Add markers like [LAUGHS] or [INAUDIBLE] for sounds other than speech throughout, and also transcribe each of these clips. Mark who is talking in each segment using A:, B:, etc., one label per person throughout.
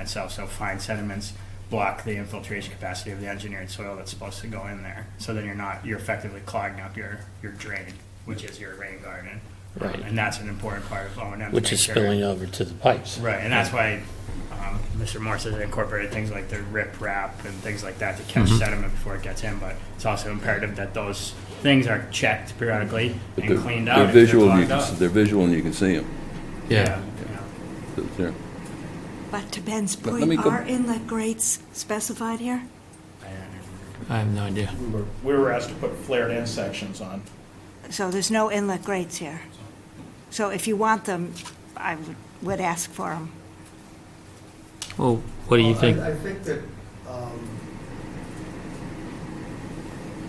A: itself. So fine sediments block the infiltration capacity of the engineered soil that's supposed to go in there. So then you're not, you're effectively clogging up your, your drain, which is your rain garden. Um,
B: Right.
A: And that's an important part of O and M.
B: Which is spilling over to the pipes.
A: Right, and that's why um, Mr. Morse has incorporated things like the rip wrap and things like that to catch
B: Mm-hmm.
A: sediment before it gets in. But it's also imperative that those things are checked periodically
C: But
A: and
C: they're-
A: cleaned
C: They're
A: out. if
C: visual, and you
A: clogged
C: can,
A: up.
C: s- they're visual and you can see them.
A: Yeah. yeah.
D: But to Ben's
C: But let me
D: point,
C: go-
D: are inlet grates specified here?
B: I have no idea.
E: We were, we were asked to put flared end sections on.
D: So there's no inlet grates here. So if you want them, I would, would ask for them.
B: Well, what do you
F: Well, Uh, I-
B: think?
F: I think that um,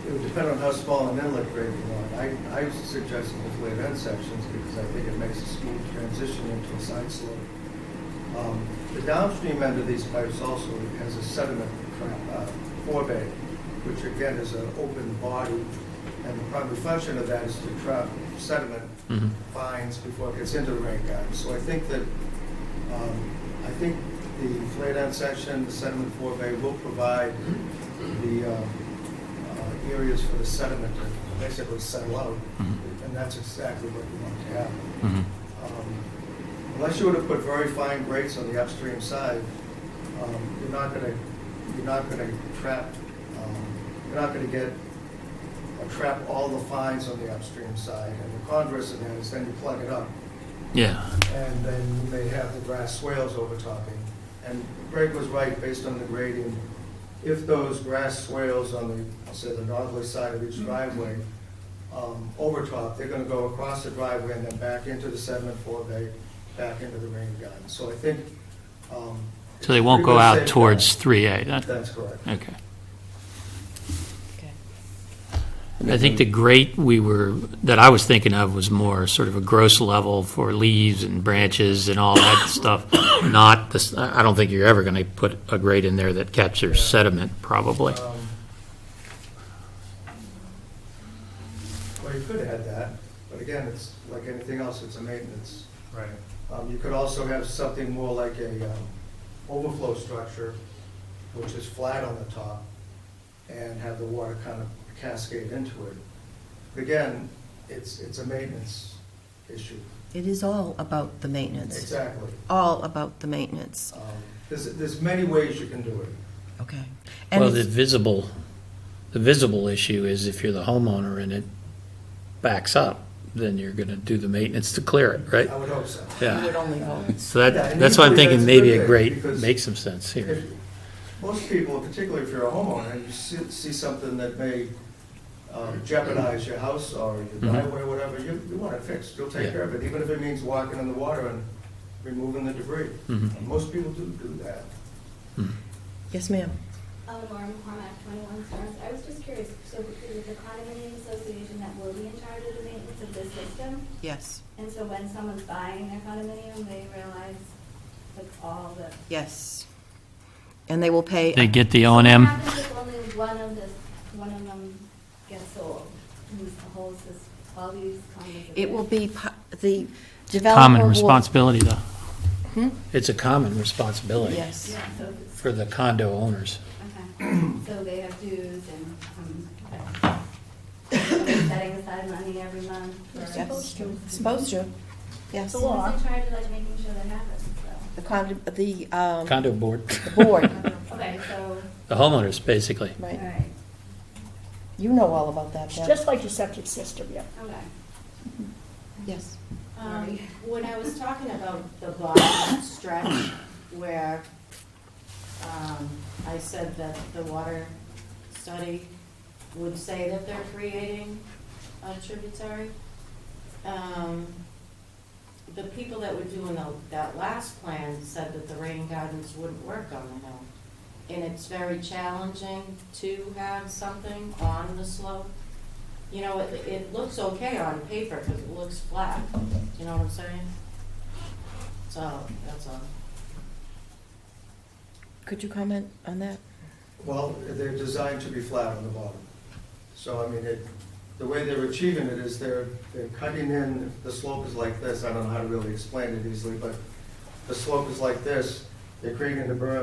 F: it would depend on how small an inlet grade you want. I, I suggest hopefully at end sections because I think it makes a smooth transition into a side slope. Um, The downstream end of these pipes also has a sediment tra- uh, forebay, which again is an open body. And the primary function of that is to trap sediment
B: Mhm.
F: fines before it gets into the rain garden. So I think that um, I think the flared end section, the sediment forebay will provide the um, uh, areas for the sediment to basically settle out,
B: Mhm.
F: and that's exactly what you want to have.
B: Mhm.
F: Um, Unless you were to put very fine grates on the upstream side, um, you're not gonna, you're not gonna trap, um, you're not gonna get, or trap all the fines on the upstream side. And the converse of that is then you plug it up,
B: Yeah.
F: and then you may have the grass swales overtopping. And Greg was right, based on the grading, if those grass swales on the, I'll say, the northerly side of each driveway um, overtop, they're gonna go across the driveway and then back into the sediment forebay, back into the rain garden. So I think. um,
B: So they won't go
F: pretty
B: out
F: much safe
B: towards
F: bet.
B: 3A? that-
F: That's correct.
B: Okay. I think the grate we were, that I was thinking of was more sort of a gross level for leaves and branches and all that [COUGHS] stuff, not this, I I don't think you're ever going to put a grate in there that captures sediment, probably.
F: Um, Well, you could add that, but again, it's like anything else, it's a maintenance.
A: Right.
F: Um, You could also have something more like a um, overflow structure, which is flat on the top, and have the water kind of cascade into it. Again, it's, it's a maintenance issue.
G: It is all about the maintenance,
F: Exactly.
G: all about the maintenance,
F: Um, There's, there's many ways you can do it.
G: okay? And
B: Well, the
G: it's-
B: visible, the visible issue is if you're the homeowner and it backs up, then you're going to do the maintenance to clear it, right?
F: I would hope so.
G: you would
B: Yeah.
G: only hope.
B: So that, that's why I'm thinking maybe a grate makes some sense here.
F: Most people, particularly if you're a homeowner, you see, see something that may um, jeopardize your house or your
B: Mhm.
F: driveway, whatever, you, you want it fixed, you'll
B: Yeah.
F: take care of it, even if it means walking in the water and removing the debris.
B: Mhm.
F: And Most people do do that.
G: Yes, ma'am.
H: Oh, Laura McCormack, 21 Stars. I was just curious, so is it the condominium association that will be in charge of the maintenance of this system?
G: Yes,
H: And so when someone's buying their condominium, they realize like all the.
G: yes. And they will pay.
B: They get the O and M.
H: What happens if only one of the, one of them gets sold? Who's the whole system, all these condos? are
G: It will
H: there?
G: be, pu- the developer
B: Common
G: will-
B: responsibility, though.
G: Hmm?
B: It's a common responsibility.
G: Yes,
H: Yeah, so if it's,
B: For the condo owners.
G: [CLEARS THROAT]
H: okay. So they have dues and, um, [COUGHS] setting aside money every month. for-
G: yes. Supposed to, yes.
H: So who's in charge of like making sure that happens, so?
G: The condo, the, um,
B: Condo board, [LAUGHS]
G: board,
H: Okay, so,
B: the homeowners, basically.
H: all
G: right.
H: right,
G: You know all about that,
I: It's
G: Deb.
I: just like your septic system, yeah.
H: okay.
G: Yes.
J: Um, When I was talking about the bottom [COUGHS] stretch where um, I said that the water study would say that they're creating a tributary, um, the people that were doing the- that last plan said that the rain gardens wouldn't work on the hill. And it's very challenging to have something on the slope. You know, it, it looks okay on paper because it looks flat, you know what I'm saying? So, that's all.
G: Could you comment on that?
F: Well, they're designed to be flat on the bottom. So, I mean, it, the way they're achieving it is they're, they're cutting in, the slope is like this, I don't know how to really explain it easily, but the slope is like this, the creek and the berm